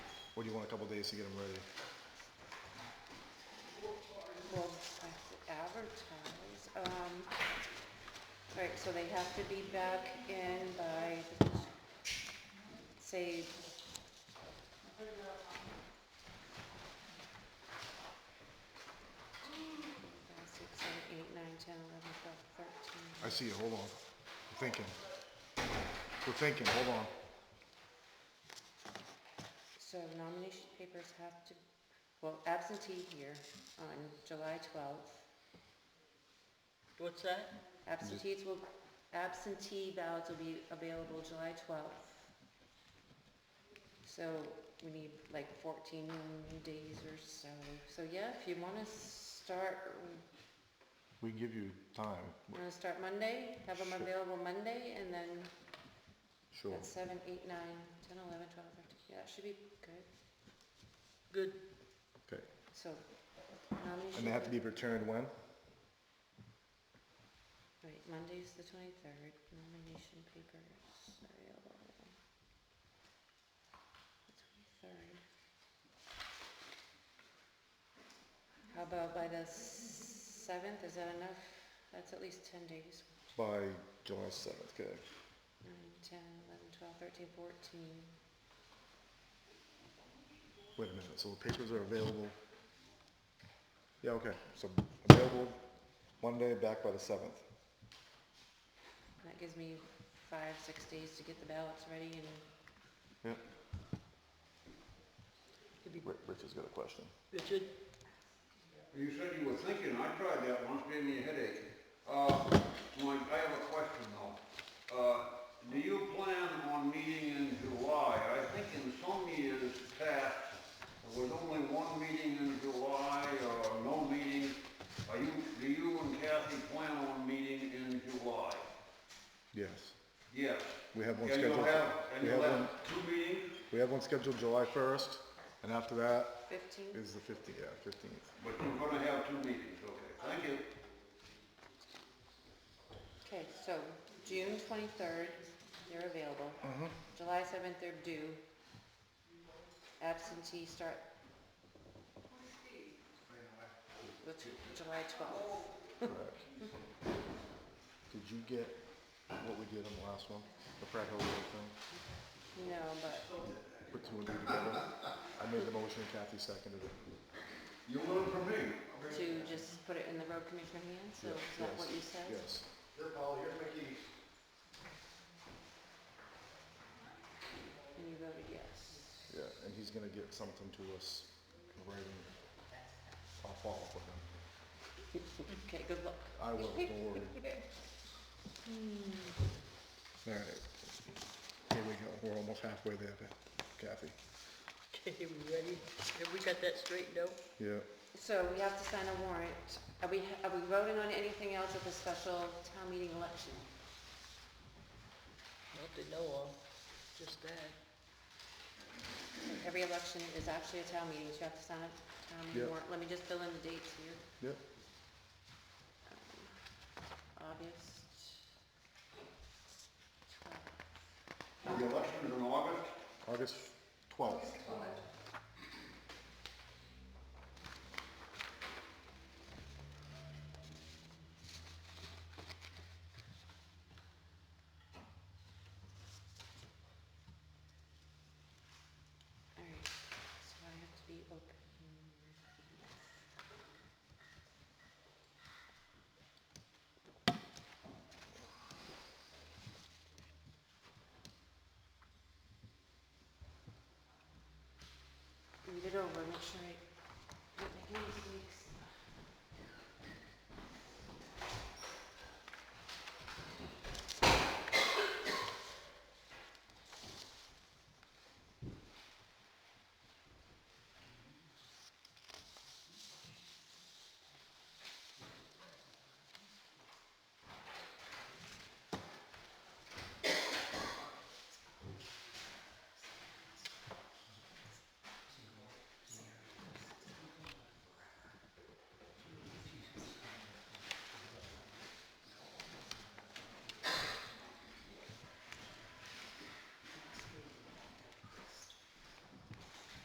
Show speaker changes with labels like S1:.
S1: you want a couple days to get them ready.
S2: Well, I have to advertise, um, all right, so they have to be back in by, say, five, six, seven, eight, nine, ten, eleven, twelve, thirteen.
S1: I see you, hold on. We're thinking. We're thinking, hold on.
S2: So nomination papers have to, well, absentee here on July twelfth.
S3: What's that?
S2: Absentees will, absentee ballots will be available July twelfth. So we need like fourteen days or so. So yeah, if you wanna start,
S1: We can give you time.
S2: wanna start Monday, have them
S1: Sure.
S2: available Monday and then
S1: Sure.
S2: at seven, eight, nine, ten, eleven, twelve, thirteen, yeah, it should be good.
S3: Good.
S1: Okay.
S2: So nomination.
S1: And they have to be returned when?
S2: Right, Monday's the twenty-third, nomination papers available. The twenty-third. How about by the seventh, is that enough? That's at least ten days,
S1: By July seventh, okay.
S2: nine, ten, eleven, twelve, thirteen, fourteen.
S1: Wait a minute, so the papers are available? Yeah, okay, so available Monday, back by the seventh.
S2: That gives me five, six days to get the ballots ready and
S1: Yeah.
S3: Could be-
S1: Rich has got a question.
S3: Richard?
S4: You said you were thinking, I tried that once, gave me a headache. Uh, my, I have a question though. Uh, do you plan on meeting in July? I think in some years past, there was only one meeting in July or no meeting. Are you, do you and Kathy plan on meeting in July?
S1: Yes,
S4: Yes.
S1: we have one
S4: And
S1: scheduled.
S4: you'll have, and
S1: We
S4: you'll
S1: have one,
S4: have two meetings,
S1: we have one scheduled July first, and after that
S2: fifteen.
S1: is the fifteenth, yeah, fifteenth.
S4: but you're gonna have two meetings, okay, thank you.
S2: Okay, so June twenty-third, they're available. July seventh, they're due. Absentee start. The tw- July twelfth.
S1: Correct. Did you get what we did on the last one, the Pratt Hill Road thing?
S2: No, but
S1: Put two and two together. I made the motion, Kathy seconded it.
S4: You learn from me.
S2: to just put it in the road commissioner hands, so is that what you said?
S1: Yes,
S4: Here, Paul, here's my keys.
S2: And you voted yes.
S1: yeah, and he's gonna get something to us in writing. I'll follow up with him.
S2: Okay, good luck.
S1: I will, don't worry.
S2: Hmm.
S1: All right, here we go, we're almost halfway there, Kathy.
S3: Okay, we ready? Have we got that straightened out?
S1: Yeah,
S2: So we have to sign a warrant. Are we, are we voting on anything else at the special town meeting election?
S3: Not to know of, just that.
S2: Every election is actually a town meeting, so you have to sign a town meeting
S1: Yep.
S2: warrant. Let me just fill in the dates here. Um,
S1: yep,
S2: August. 12th.
S4: The election's in August?
S1: August twelfth.
S2: All right, so I have to be open. Read it over, make sure I, make it easy.